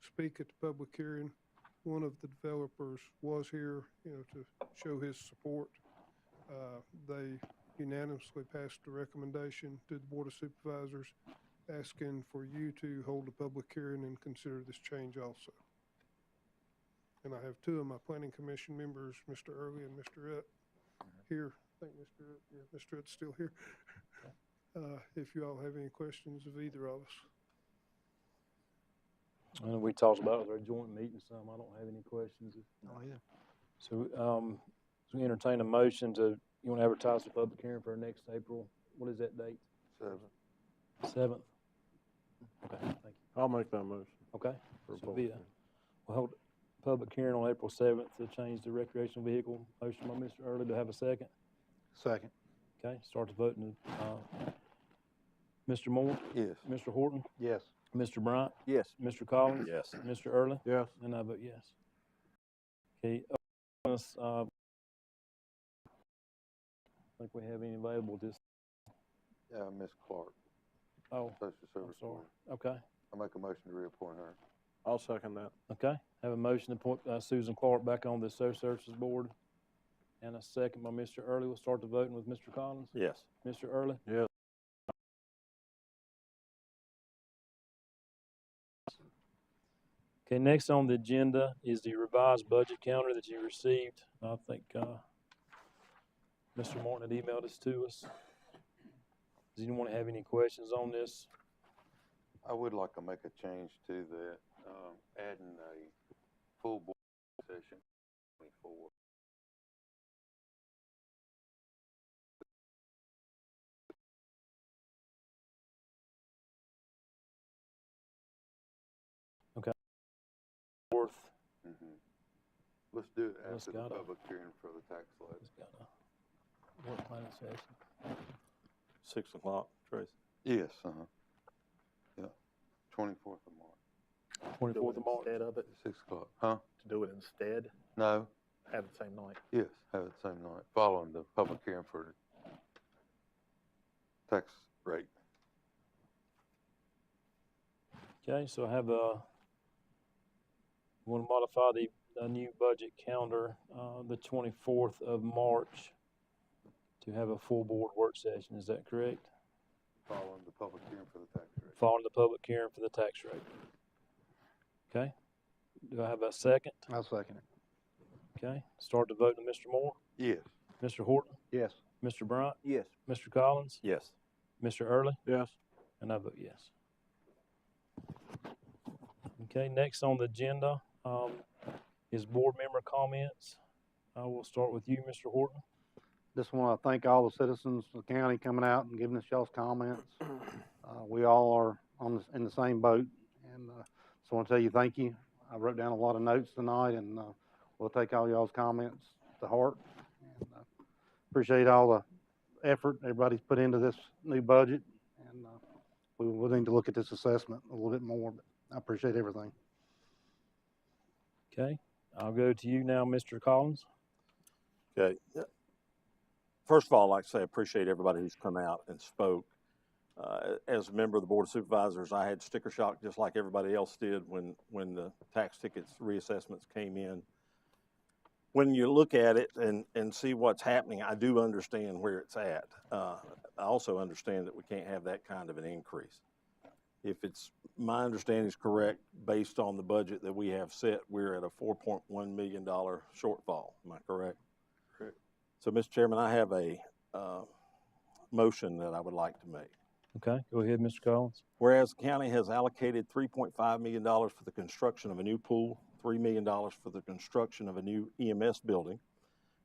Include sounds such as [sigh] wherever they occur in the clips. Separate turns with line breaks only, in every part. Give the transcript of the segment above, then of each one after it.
speak at the public hearing. One of the developers was here, you know, to show his support. Uh, They unanimously passed a recommendation to the Board of Supervisors asking for you to hold a public hearing and consider this change also. And I have two of my planning commission members, Mr. Early and Mr. Rutt, here. I think Mr. Rutt, yeah, Mr. Rutt's still here. [laughs] Uh, If you all have any questions of either of us.
And we talked about it at our joint meeting some. I don't have any questions.
Oh, yeah.
So, um, so we entertain a motion to, you want to advertise the public hearing for next April? What is that date?
Seven.
Seventh? Okay, thank you.
I'll make that motion.
Okay,
for
So
both.
be it. we'll hold a public hearing on April seventh to change the recreational vehicle. Motion by Mr. Early to have a second.
Second.
Okay, start the voting. Uh, Mr. Moore,
Yes.
Mr. Horton,
Yes.
Mr. Bryant,
Yes.
Mr. Collins,
Yes.
Mr. Early.
Yes.
And I vote yes. Okay, uh, unless, uh, think we have any available this,
Uh, Ms. Clark,
oh,
Social
I'm
Service
sorry.
Board.
Okay,
I make a motion to reappoint her.
I'll second that.
okay. Have a motion to appoint uh, Susan Clark back on the social services board. And a second by Mr. Early. We'll start the voting with Mr. Collins.
Yes.
Mr. Early?
Yes.
Okay, next on the agenda is the revised budget calendar that you received. I think, uh, Mr. Martin had emailed this to us. Does anyone have any questions on this?
I would like to make a change to that, um, adding a full board session twenty-four.
Fourth,
Mhm. Let's do it
Let's
after the
got it.
public hearing for the tax levy.
it's got a work plan session.
Six o'clock, Tracy.
Yes, uh-huh. Yeah, twenty-fourth of March,
Twenty-fourth of March.
Instead of it,
six o'clock, huh?
to do it instead,
No,
have the same night.
yes, have it same night, following the public hearing for the tax rate.
Okay, so I have a, want to modify the, uh new budget calendar, uh, the twenty-fourth of March to have a full board work session, is that correct?
Following the public hearing for the tax rate.
Following the public hearing for the tax rate. Okay, do I have a second?
I'll second it.
Okay, start the vote to Mr. Moore,
Yes.
Mr. Horton,
Yes.
Mr. Bryant,
Yes.
Mr. Collins,
Yes.
Mr. Early.
Yes.
And I vote yes. Okay, next on the agenda, um, is board member comments. I will start with you, Mr. Horton.
Just want to thank all the citizens of the county coming out and giving us y'all's comments. Uh, we all are on the, in the same boat, and uh, so I want to tell you thank you. I wrote down a lot of notes tonight, and uh, we'll take all y'all's comments to heart. And, uh, appreciate all the effort everybody's put into this new budget, and uh, we will need to look at this assessment a little bit more. But I appreciate everything.
Okay, I'll go to you now, Mr. Collins.
Okay. First of all, I'd like to say I appreciate everybody who's come out and spoke. Uh, as a member of the Board of Supervisors, I had sticker shock just like everybody else did when, when the tax tickets reassessments came in. When you look at it and, and see what's happening, I do understand where it's at. Uh, I also understand that we can't have that kind of an increase. If it's, my understanding is correct, based on the budget that we have set, we're at a $4.1 million shortfall. Am I correct? So, Mr. Chairman, I have a uh, motion that I would like to make.
Okay, go ahead, Mr. Collins.
Whereas the county has allocated $3.5 million for the construction of a new pool, $3 million for the construction of a new EMS building,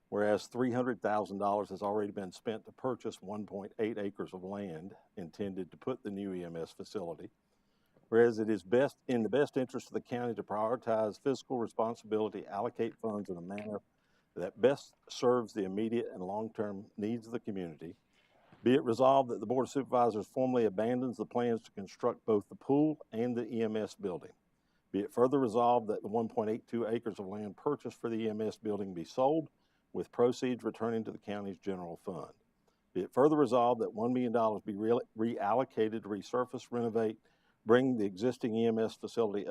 whereas $300,000 has already been spent to purchase 1.8 acres of land intended to put the new EMS facility, whereas it is best, in the best interest of the county to prioritize fiscal responsibility, allocate funds in a manner that best serves the immediate and long-term needs of the community, be it resolved that the Board of Supervisors formally abandons the plans to construct both the pool and the EMS building. Be it further resolved that the 1.82 acres of land purchased for the EMS building be sold, with proceeds returning to the county's general fund. Be it further resolved that $1 million be re- reallocated to resurface, renovate, bring the existing EMS facility